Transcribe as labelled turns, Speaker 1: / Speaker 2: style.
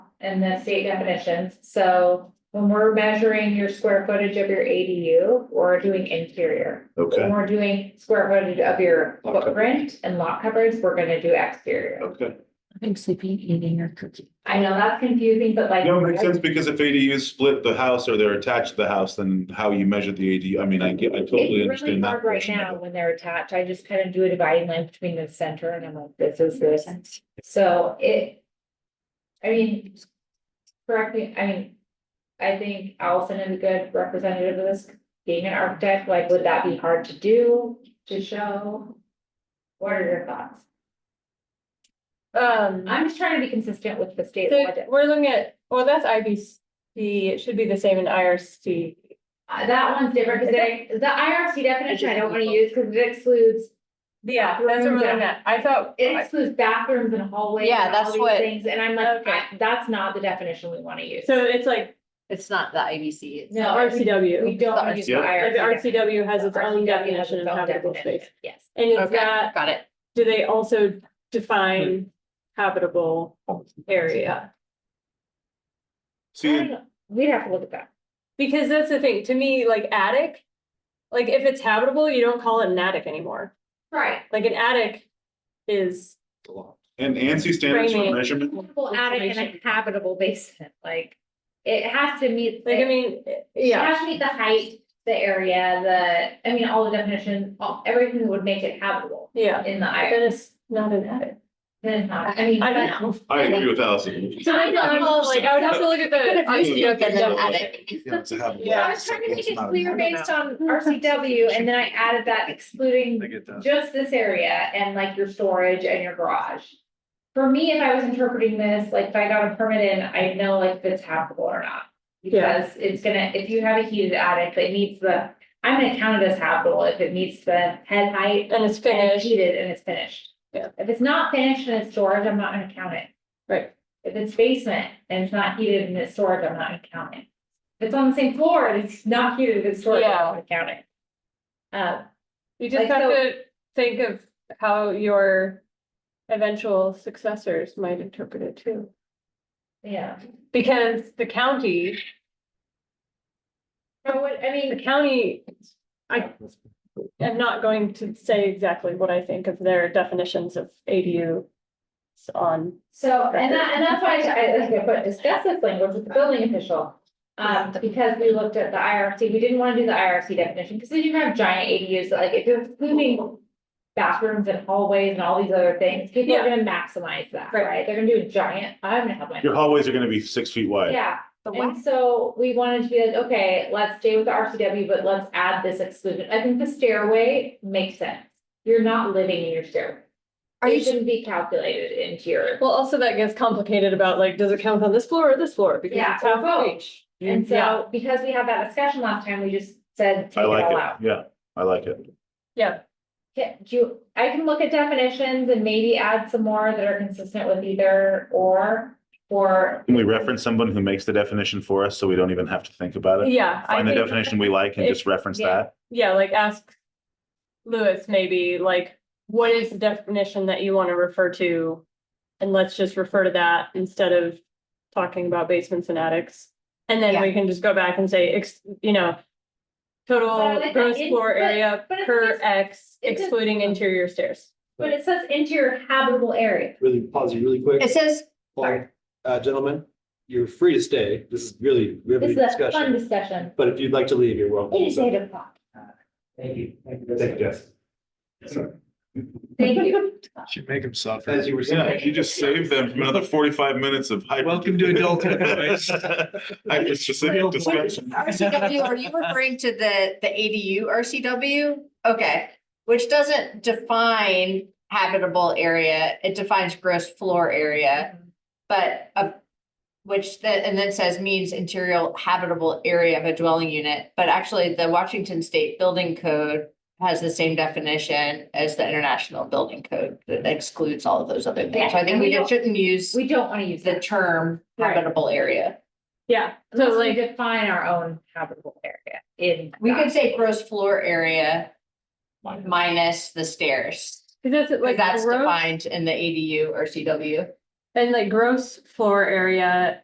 Speaker 1: and the state definitions, so when we're measuring your square footage of your ADU, we're doing interior. When
Speaker 2: Okay,
Speaker 1: we're doing square footage of your
Speaker 2: Lot coverage.
Speaker 1: footprint and lot coverage, we're gonna do exterior.
Speaker 2: okay.
Speaker 3: I'm sleeping, eating or cooking.
Speaker 1: I know that's confusing, but like.
Speaker 2: No, it makes sense because if ADUs split the house or they're attached to the house, then how you measure the ADU, I mean, I get, I totally
Speaker 1: It's really
Speaker 2: understand that.
Speaker 1: hard right
Speaker 2: portion
Speaker 1: now
Speaker 2: of it.
Speaker 1: when they're attached. I just kind of do a dividing line between the center and I'm like, this is this. So it. I mean. Correct me, I mean. I think Allison is a good representative of this, being an architect, like, would that be hard to do, to show? What are your thoughts?
Speaker 4: Um,
Speaker 1: I'm just trying to be consistent with the state
Speaker 4: so
Speaker 1: budget.
Speaker 4: we're looking at, well, that's IBC, it should be the same in IRC.
Speaker 1: Uh, that one's different, because I, the IRC definition I don't wanna use, because it excludes,
Speaker 4: Yeah, that's what we're looking at, I thought.
Speaker 1: it excludes bathrooms and hallways.
Speaker 3: Yeah,
Speaker 1: and all
Speaker 3: that's
Speaker 1: these
Speaker 3: what-
Speaker 1: Things, and I'm like,
Speaker 4: Okay.
Speaker 1: I- that's not the definition we wanna use.
Speaker 4: So it's like
Speaker 3: It's not the IBC. it's-
Speaker 1: No, We
Speaker 4: RCW,
Speaker 1: don't wanna use the
Speaker 2: Yeah.
Speaker 4: like
Speaker 1: IRC.
Speaker 4: the RCW has its own
Speaker 1: RCW has
Speaker 4: definition
Speaker 1: its
Speaker 4: of
Speaker 1: own
Speaker 4: habitable
Speaker 1: definition,
Speaker 4: space.
Speaker 1: Yes.
Speaker 4: And it's
Speaker 3: Okay,
Speaker 4: that,
Speaker 3: got it.
Speaker 4: do they also define habitable area?
Speaker 1: I
Speaker 2: See,
Speaker 1: don't know. We'd have to look at that.
Speaker 4: Because that's the thing, to me, like attic, like if it's habitable, you don't call it an attic anymore,
Speaker 1: Right.
Speaker 4: like an attic is,
Speaker 2: and ANSI standards for
Speaker 4: Framing.
Speaker 2: measurement,
Speaker 1: Habitable attic and a
Speaker 4: Information.
Speaker 1: habitable basement, like, it has to meet.
Speaker 4: like, I
Speaker 1: the-
Speaker 4: mean,
Speaker 1: It
Speaker 4: yeah.
Speaker 1: has to meet the height, the area, the, I mean, all the definition, all, everything that would make it habitable
Speaker 4: Yeah,
Speaker 1: in the
Speaker 4: but
Speaker 1: I.
Speaker 4: then it's not an attic.
Speaker 1: Then, not- I mean.
Speaker 4: I
Speaker 1: but-
Speaker 4: don't know.
Speaker 2: I agree with Allison.
Speaker 4: So I know, I'm all like, I would have to look at the.
Speaker 2: I used to look at
Speaker 4: Yeah.
Speaker 2: them at it.
Speaker 1: Well, I was trying to make it clear based on RCW and then I added that excluding just this area and like your storage and your garage. For me, if I was interpreting this, like if I got a permit in, I know like if it's habitable or not.
Speaker 4: Yeah.
Speaker 1: Because it's gonna, if you have a heated attic, it meets the, I'm gonna count it as habitable if it meets the head height
Speaker 4: And it's
Speaker 1: and it's
Speaker 4: finished,
Speaker 1: heated and it's finished.
Speaker 4: Yeah.
Speaker 1: If it's not finished and it's storage, I'm not gonna count it.
Speaker 4: right,
Speaker 1: If it's basement and it's not heated and it's storage, I'm not gonna count it. If it's on the same floor and it's not heated, and it's storage, I'm not gonna count it. Uh,
Speaker 4: you just
Speaker 1: Like,
Speaker 4: have
Speaker 1: so-
Speaker 4: to think of how your eventual successors might interpret it too.
Speaker 1: yeah,
Speaker 4: Because the county,
Speaker 1: so what, I
Speaker 4: the
Speaker 1: mean,
Speaker 4: county, I am not going to say exactly what I think of their definitions of ADU. s- On,
Speaker 1: so, and that, and that's why I, I like to put discuss this language with the building official. Um, because we looked at the IRC, we didn't wanna do the IRC definition, because then you have giant ADUs, that, like if you're including. Bathrooms and hallways and all these other things, people are gonna maximize that,
Speaker 4: Right.
Speaker 1: right? They're gonna do a giant, I'm gonna have my.
Speaker 2: Your hallways are gonna be six feet wide.
Speaker 1: Yeah,
Speaker 3: The what?
Speaker 1: And so we wanted to be like, okay, let's stay with the RCW, but let's add this exclusion. I think the stairway makes sense. You're not living in your stairway.
Speaker 3: Are
Speaker 1: It
Speaker 3: you,
Speaker 1: shouldn't be calculated into your,
Speaker 4: well, also that gets complicated about like, does it count on this floor or this floor? Because
Speaker 1: Yeah,
Speaker 4: it's
Speaker 1: or
Speaker 4: half of
Speaker 1: both. Mm,
Speaker 4: each.
Speaker 1: and
Speaker 4: Mm, Yeah.
Speaker 1: so because we had that discussion last time, we just said,
Speaker 2: I
Speaker 1: take it
Speaker 2: like
Speaker 1: all out.
Speaker 2: it, yeah, I like it.
Speaker 4: Yeah,
Speaker 1: Yeah, do you, I can look at definitions and maybe add some more that are consistent with either or, or.
Speaker 2: Can we reference someone who makes the definition for us so we don't even have to think about it?
Speaker 4: yeah. I
Speaker 2: Find the
Speaker 4: think-
Speaker 2: definition we like and just reference
Speaker 1: Yeah.
Speaker 2: that?
Speaker 4: yeah, like ask Lewis maybe, like, what is the definition that you want to refer to? And let's just refer to that instead of talking about basements and attics. And then we can just go back and say, ex, you know,
Speaker 1: But I
Speaker 4: total
Speaker 1: like that
Speaker 4: gross
Speaker 1: in-
Speaker 4: floor
Speaker 1: but-
Speaker 4: area
Speaker 1: but it
Speaker 4: per
Speaker 1: says-
Speaker 4: X
Speaker 1: it says-
Speaker 4: excluding interior stairs.
Speaker 1: But it says into your habitable area.
Speaker 5: really pause you really quick.
Speaker 3: it says,
Speaker 5: Paul, Uh, gentlemen, you're free to stay. This is really
Speaker 1: This
Speaker 5: riveting
Speaker 1: is a fun
Speaker 5: discussion,
Speaker 1: discussion.
Speaker 5: but if you'd like to leave, you're welcome.
Speaker 1: It is eight o'clock.
Speaker 5: Thank you. Thank you. Thank you, Jess.
Speaker 1: Thank you.
Speaker 6: Should make him suffer.
Speaker 5: As you were
Speaker 2: Yeah,
Speaker 5: saying.
Speaker 2: you just saved them from another forty-five minutes of. hyper-
Speaker 6: Welcome to adulthood, boys.
Speaker 2: Hyper specific discussion.
Speaker 3: RCW, are you referring to the, the ADU RCW? Okay, which doesn't define habitable area, it defines gross floor area, but a which that, and then says means interior habitable area of a dwelling unit, but actually the Washington State Building Code has the same definition as the International Building Code that excludes all of those other things. So I
Speaker 1: Yeah, and
Speaker 3: think
Speaker 1: we
Speaker 3: we
Speaker 1: don't-
Speaker 3: just shouldn't use
Speaker 1: We don't wanna use
Speaker 3: the
Speaker 1: that.
Speaker 3: term
Speaker 1: Right.
Speaker 3: habitable area.
Speaker 4: Yeah, so
Speaker 1: Unless we
Speaker 4: like,
Speaker 1: define our own habitable area in.
Speaker 3: We
Speaker 1: that.
Speaker 3: could say gross floor area minus the stairs.
Speaker 4: 'cause that's like.
Speaker 3: Like that's
Speaker 4: gross-
Speaker 3: defined in the ADU or CW.
Speaker 4: And like gross floor area